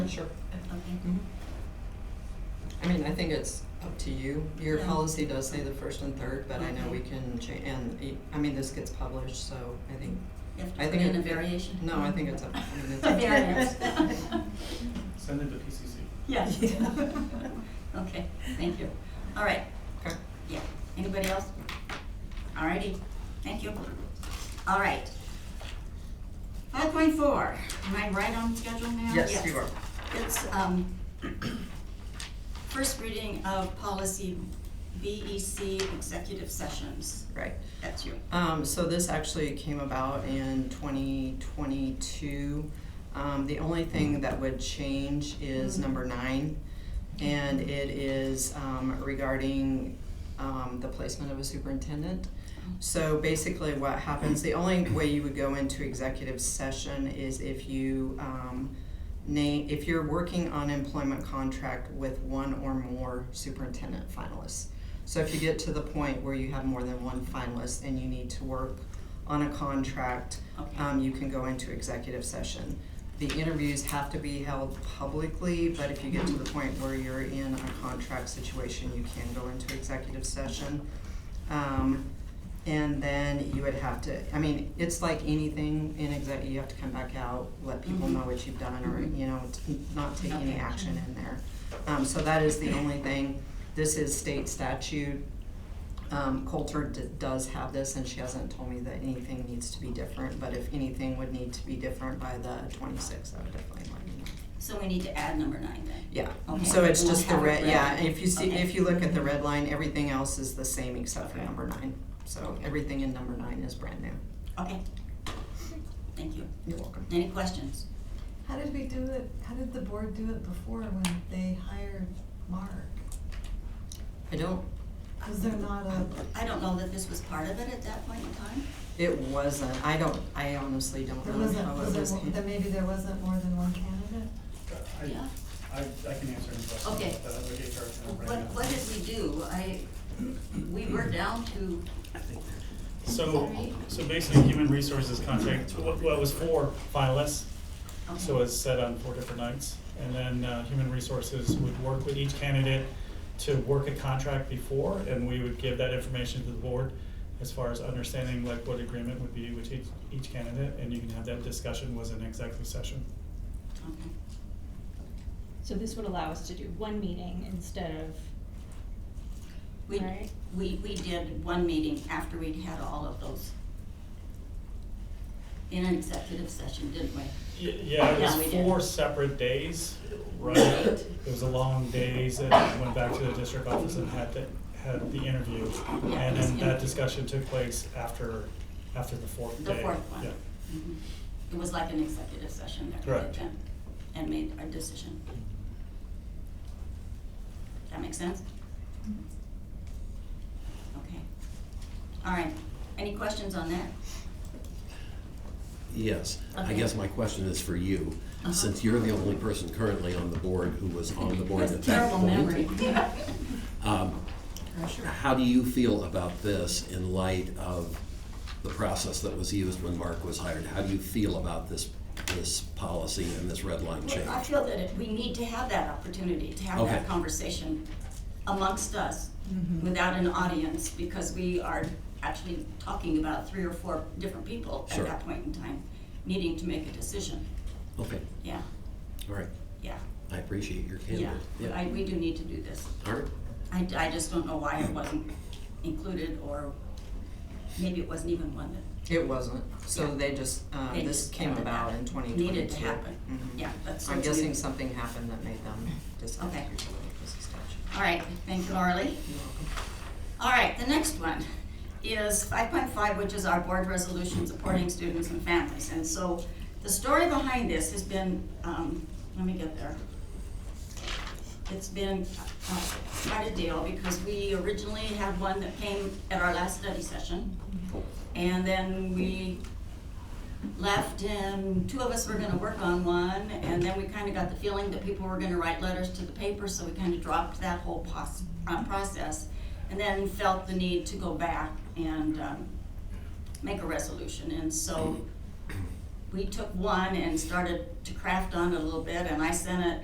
Sure. of something. Mhm. I mean, I think it's up to you. Your Yeah. Mm-hmm. policy does say the first and third, but I know we Okay. can cha- and, e- I mean, this gets published, so I think, You have to I put think. in it- a variation. No, I think it's up, I mean, it's A up to you. variance. Send it to PCC. Yes. Okay, thank you. All right, Okay. yeah. Anybody else? All righty, thank you. All right. Five point four, am I right on schedule now? Yes, you are. It's, um, first reading of policy BEC executive sessions. Right. That's you. Um, so this actually came about in twenty twenty-two. Um, the only thing that would change is number nine. And it is, um, regarding, um, the placement of a superintendent. So basically what happens, the only way you would go into executive session is if you, um, name, if you're working on employment contract with one or more superintendent finalists. So if you get to the point where you have more than one finalist and you need to work on a contract, Okay. um, you can go into executive session. The interviews have to be held publicly, but if you get to the point where you're in a contract situation, you can go into executive session. Um, and then you would have to, I mean, it's like anything in exec, you have to come back out, let people Mhm. know what you've done, or, you know, t- not take any Okay. action in there. Um, so that is the only thing, this is state statute. Um, Coulter d- does have this, and she hasn't told me that anything needs to be different, but if anything would need to be different by the twenty-sixth, I would definitely let you know. So we need to add number nine then. Yeah, Okay. so it's And we'll just the have it red, red. yeah, if you see, Okay. if you look at the red line, everything else is the same except for Okay. number nine. So everything in number nine is brand new. Okay. Thank you. You're welcome. Any questions? How did we do it, how did the board do it before when they hired Mark? I don't, Was there not a, I don't know that this was part of it at that point in time. it wasn't, I don't, I honestly don't there know wasn't, how was it there, was. mo- then maybe there wasn't more than one candidate? I- Yeah. I, I can answer any questions. Okay. That would get HR to know right What, now. what did we do? I, we were down to, So, so basically, human resources contract, what, what was four finalists, so okay, it's set on four different nights. And then, uh, human resources would work with each candidate to work a contract before, and we would give that information to the board as far as understanding like what agreement would be with each, each candidate, and you can have that discussion was an executive session. okay. So this would allow us to do one meeting instead of, We, right? we, we did one meeting after we'd had all of those in an executive session, didn't we? Y- Yeah, it Yeah, we was did. four separate days, right? It was a long days and I went back to the district office and had the, had the interview. Yeah, And it was then interview. that discussion took place after, after the fourth The day. fourth one. Yeah. Mhm. It was like an executive session that we did Correct. then, and made our decision. That make sense? Okay. All right, any questions on that? Yes, I Okay. guess my question is for you, Uh-huh. since you're the only person currently on the board who was on the board That's at that point. Terrible memory. um, How do you feel about this in light of the process that was used when Mark was hired? How do you feel about this, this policy and this red line change? I feel that it- we need to have that opportunity, to have that Okay. conversation amongst us without an audience, because we are actually talking about three or four different people at Sure. that point in time, needing to make a decision. Okay, Yeah, all right, yeah, I appreciate your yeah. candor. I, we do need to do this. All right, I, I just don't know why it wasn't included, or maybe it wasn't even one that It wasn't, so Yeah. they just, uh, They this just came added about that. in twenty twenty-two. Mm-hmm. needed to happen. Yeah, that's. I'm that's new. guessing something happened that made them decide to Okay. do this statute. All right, thank you, Orly. You're welcome. All right, the next one is five point five, which is our board resolution supporting students and families. And so the story behind this has been, um, let me get there. It's been uh, quite a deal because we originally had one that came at our last study session. And then we left and two of us were gonna work on one and then we kinda got the feeling that people were gonna write letters to the paper, so we kinda dropped that whole pos- uh, process. And then felt the need to go back and, um, make a resolution, and so we took one and started to craft on it a little bit and I sent it